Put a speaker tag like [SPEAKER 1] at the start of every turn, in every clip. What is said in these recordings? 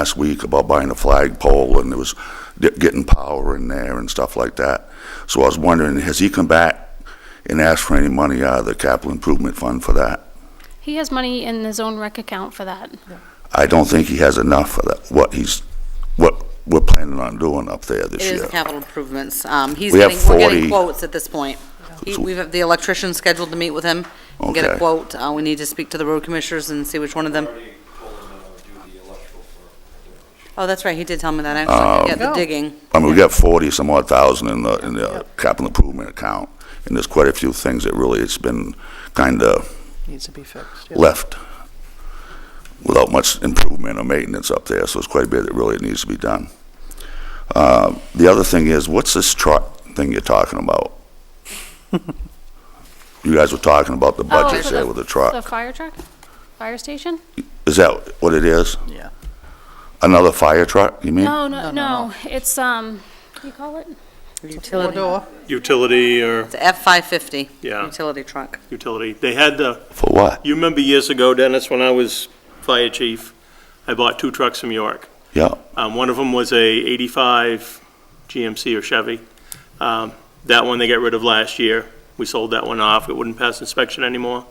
[SPEAKER 1] last week about buying a flagpole, and it was di- getting power in there and stuff like that. So I was wondering, has he come back and asked for any money out of the capital improvement fund for that?
[SPEAKER 2] He has money in his own rec account for that.
[SPEAKER 1] I don't think he has enough for that, what he's, what we're planning on doing up there
[SPEAKER 3] It
[SPEAKER 1] this year.
[SPEAKER 3] is capital improvements. Um, He's
[SPEAKER 1] We have
[SPEAKER 3] getting, we're
[SPEAKER 1] 40.
[SPEAKER 3] getting quotes at this point. He- We've have the electrician scheduled to meet with him, and get
[SPEAKER 1] Okay.
[SPEAKER 3] a quote. Uh, We need to speak to the road commissioners and see which one of them.
[SPEAKER 4] Already told them that I would do the electrical for.
[SPEAKER 3] Oh, that's right, he did tell me that,
[SPEAKER 1] Um,
[SPEAKER 3] actually, yeah, the digging.
[SPEAKER 1] I mean, we got forty some odd thousand in the, in the capital improvement account, and there's quite a few things that really, it's been kinda
[SPEAKER 5] needs to be fixed. yeah.
[SPEAKER 1] left without much improvement or maintenance up there, so it's quite a bit that really needs to be done. Uh, the other thing is, what's this truck thing you're talking about? You guys were talking about the
[SPEAKER 2] Oh,
[SPEAKER 1] budgets
[SPEAKER 2] for
[SPEAKER 1] there with the
[SPEAKER 2] The
[SPEAKER 1] truck.
[SPEAKER 2] fire truck? Fire station?
[SPEAKER 1] Is that what it is?
[SPEAKER 5] Yeah.
[SPEAKER 1] Another fire truck, you mean?
[SPEAKER 2] Hmm? No, no, no, it's, um, what do you call it?
[SPEAKER 5] Four
[SPEAKER 3] Utility,
[SPEAKER 5] door,
[SPEAKER 6] utility or,
[SPEAKER 3] the F-550
[SPEAKER 6] yeah,
[SPEAKER 3] utility truck.
[SPEAKER 6] utility. They had the,
[SPEAKER 1] For what?
[SPEAKER 6] you remember years ago, Dennis, when I was fire chief, I bought two trucks from York.
[SPEAKER 1] Yeah,
[SPEAKER 6] Um, one of them was a 85 GMC or Chevy. Um, that one they got rid of last year. We sold that one off. It wouldn't pass inspection anymore.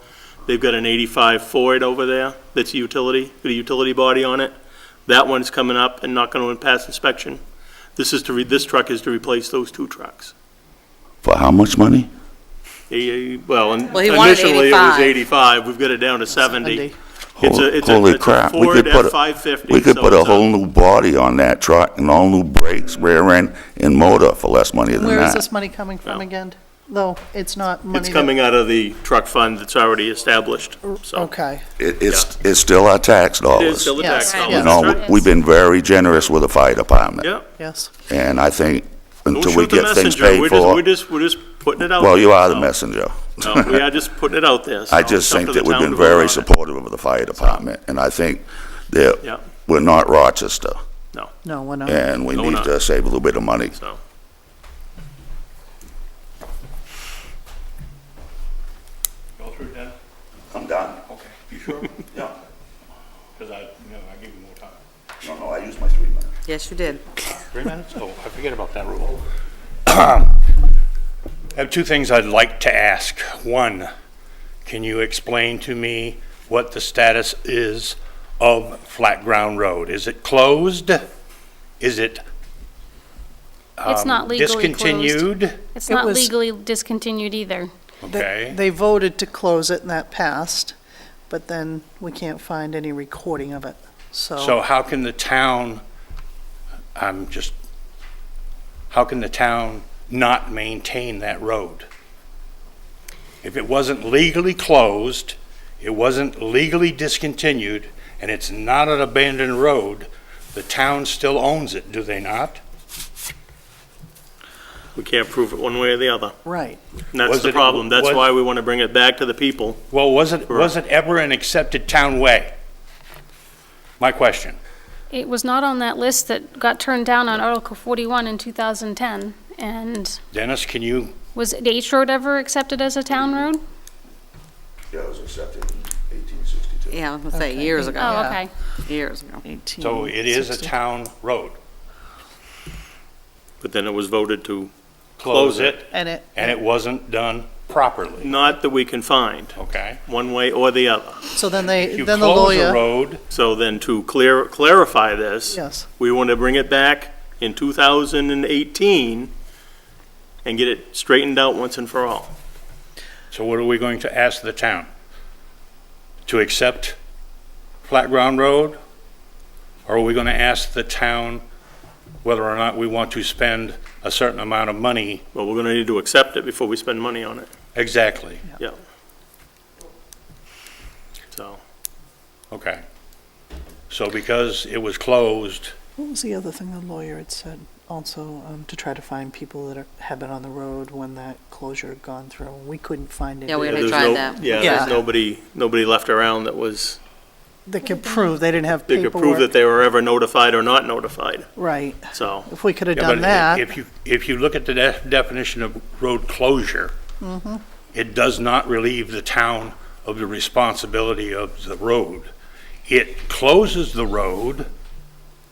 [SPEAKER 6] They've got an 85 Ford over there that's a utility, with a utility body on it. That one's coming up and not going to pass inspection. This is to, re- this truck is to replace those two trucks.
[SPEAKER 1] for how much money?
[SPEAKER 6] He- Well, in-
[SPEAKER 3] Well, he wanted
[SPEAKER 6] initially it was
[SPEAKER 3] 85.
[SPEAKER 6] 85, we've got it down to 70.
[SPEAKER 5] Sunday.
[SPEAKER 6] It's a-
[SPEAKER 1] Hol-
[SPEAKER 6] it's a-
[SPEAKER 1] Holy
[SPEAKER 6] it's a
[SPEAKER 1] crap. We
[SPEAKER 6] Ford
[SPEAKER 1] could put a-
[SPEAKER 6] F-550,
[SPEAKER 1] We could
[SPEAKER 6] so
[SPEAKER 1] put a
[SPEAKER 6] it's a-
[SPEAKER 1] whole new body on that truck and all new brakes, rear end, and motor for less money than that.
[SPEAKER 5] Where is this money coming from
[SPEAKER 6] Well.
[SPEAKER 5] again? Though, it's not money.
[SPEAKER 6] It's
[SPEAKER 5] that-
[SPEAKER 6] coming out of the truck fund that's already established, so.
[SPEAKER 5] Okay,
[SPEAKER 1] It, it's, it's still our tax
[SPEAKER 6] It
[SPEAKER 1] dollars.
[SPEAKER 6] is still a
[SPEAKER 5] Yes.
[SPEAKER 6] tax dollars,
[SPEAKER 1] You
[SPEAKER 5] Yeah.
[SPEAKER 6] that's
[SPEAKER 1] know,
[SPEAKER 6] right.
[SPEAKER 1] we've been very generous with the fire department,
[SPEAKER 6] Yeah.
[SPEAKER 5] yes.
[SPEAKER 1] and I think
[SPEAKER 6] Don't
[SPEAKER 1] until we
[SPEAKER 6] shoot the
[SPEAKER 1] get things
[SPEAKER 6] messenger.
[SPEAKER 1] paid
[SPEAKER 6] We're just-
[SPEAKER 1] for.
[SPEAKER 6] We're just, we're just putting it out.
[SPEAKER 1] Well, you
[SPEAKER 6] there,
[SPEAKER 1] are the
[SPEAKER 6] so-
[SPEAKER 1] messenger.
[SPEAKER 6] No, we are just putting it out there. so
[SPEAKER 1] I
[SPEAKER 6] it's
[SPEAKER 1] just
[SPEAKER 6] up
[SPEAKER 1] think
[SPEAKER 6] to
[SPEAKER 1] that
[SPEAKER 6] the
[SPEAKER 1] we've
[SPEAKER 6] town
[SPEAKER 1] been
[SPEAKER 6] to vote on
[SPEAKER 1] very
[SPEAKER 6] it.
[SPEAKER 1] supportive of the fire department, and I think
[SPEAKER 6] Yeah.
[SPEAKER 1] that we're not Rochester,
[SPEAKER 5] No, we're not.
[SPEAKER 1] and we
[SPEAKER 6] No, we're
[SPEAKER 1] need
[SPEAKER 6] not.
[SPEAKER 1] to save a little bit of money.
[SPEAKER 6] So,
[SPEAKER 4] Go through that,
[SPEAKER 1] I'm done.
[SPEAKER 4] okay. You sure?
[SPEAKER 1] Yeah.
[SPEAKER 4] Because I, you know, I give you more time.
[SPEAKER 1] No, no, I used my three minutes.
[SPEAKER 3] Yes, you did.
[SPEAKER 4] Three minutes? Oh, I forget about that rule. I have two things I'd like to ask. One, can you explain to me what the status is of Flat Ground Road? Is it closed? Is it
[SPEAKER 2] It's not legally closed.
[SPEAKER 4] discontinued?
[SPEAKER 2] It's
[SPEAKER 5] It
[SPEAKER 2] not
[SPEAKER 5] was-
[SPEAKER 2] legally discontinued either.
[SPEAKER 5] They-
[SPEAKER 4] Okay.
[SPEAKER 5] They voted to close it and that passed, but then we can't find any recording of it,
[SPEAKER 4] So how can the town, I'm just, how can the town not maintain that road? If it wasn't legally closed, it wasn't legally discontinued, and it's not an abandoned road, the town still owns it, do they not?
[SPEAKER 6] we can't prove it one way or the other.
[SPEAKER 5] Right,
[SPEAKER 6] And that's
[SPEAKER 4] Was
[SPEAKER 6] the
[SPEAKER 4] it-
[SPEAKER 6] problem. That's
[SPEAKER 4] was-
[SPEAKER 6] why we want to bring it back to the people.
[SPEAKER 4] Well, was it, was it ever an accepted town way? My question.
[SPEAKER 2] It was not on that list that got turned down on Article 41 in 2010. And
[SPEAKER 4] Dennis, can you,
[SPEAKER 2] was H Road ever accepted as a town road?
[SPEAKER 1] Yeah, it was accepted in eighteen sixty-two.
[SPEAKER 3] Yeah, I was gonna say,
[SPEAKER 5] Okay.
[SPEAKER 3] years ago.
[SPEAKER 2] Oh,
[SPEAKER 3] Yeah,
[SPEAKER 2] okay.
[SPEAKER 3] Years ago.
[SPEAKER 5] eighteen.
[SPEAKER 4] so it is a
[SPEAKER 5] 60.
[SPEAKER 4] town road.
[SPEAKER 6] But then it was voted to,
[SPEAKER 4] Close it,
[SPEAKER 5] And it,
[SPEAKER 4] and it wasn't done properly,
[SPEAKER 6] not that we can find,
[SPEAKER 4] okay?
[SPEAKER 6] one way or the other.
[SPEAKER 5] so then they,
[SPEAKER 4] If
[SPEAKER 5] then the
[SPEAKER 4] You close a
[SPEAKER 5] lawyer,
[SPEAKER 4] road,
[SPEAKER 6] So then to clear, clarify this.
[SPEAKER 5] yes,
[SPEAKER 6] We want to bring it back in 2018 and get it straightened out once and for all.
[SPEAKER 4] so what are we going to ask the town? To accept Flat Ground Road? Or are we going to ask the town whether or not we want to spend a certain amount of money?
[SPEAKER 6] Well, we're going to need to accept it before we spend money on it,
[SPEAKER 4] Exactly,
[SPEAKER 6] so.
[SPEAKER 4] okay. So because it was closed,
[SPEAKER 5] what was the other thing the lawyer had said? Also, um, to try to find people that are, have been on the road when that closure had gone through, we couldn't find
[SPEAKER 3] Yeah, we haven't
[SPEAKER 5] anybody
[SPEAKER 6] There's
[SPEAKER 3] tried
[SPEAKER 6] no-
[SPEAKER 3] that.
[SPEAKER 6] Yeah,
[SPEAKER 5] Yeah.
[SPEAKER 6] there's nobody, nobody left around that was,
[SPEAKER 5] that could prove they didn't have
[SPEAKER 6] that
[SPEAKER 5] paperwork.
[SPEAKER 6] could prove that they were ever notified or not notified,
[SPEAKER 5] Right,
[SPEAKER 6] so.
[SPEAKER 5] if we could have
[SPEAKER 4] Yeah,
[SPEAKER 5] done
[SPEAKER 4] but
[SPEAKER 5] that.
[SPEAKER 4] If you, if you look at the de- definition of road closure,
[SPEAKER 5] Mm-hmm.
[SPEAKER 4] it does not relieve the town of the responsibility of the road. It closes the road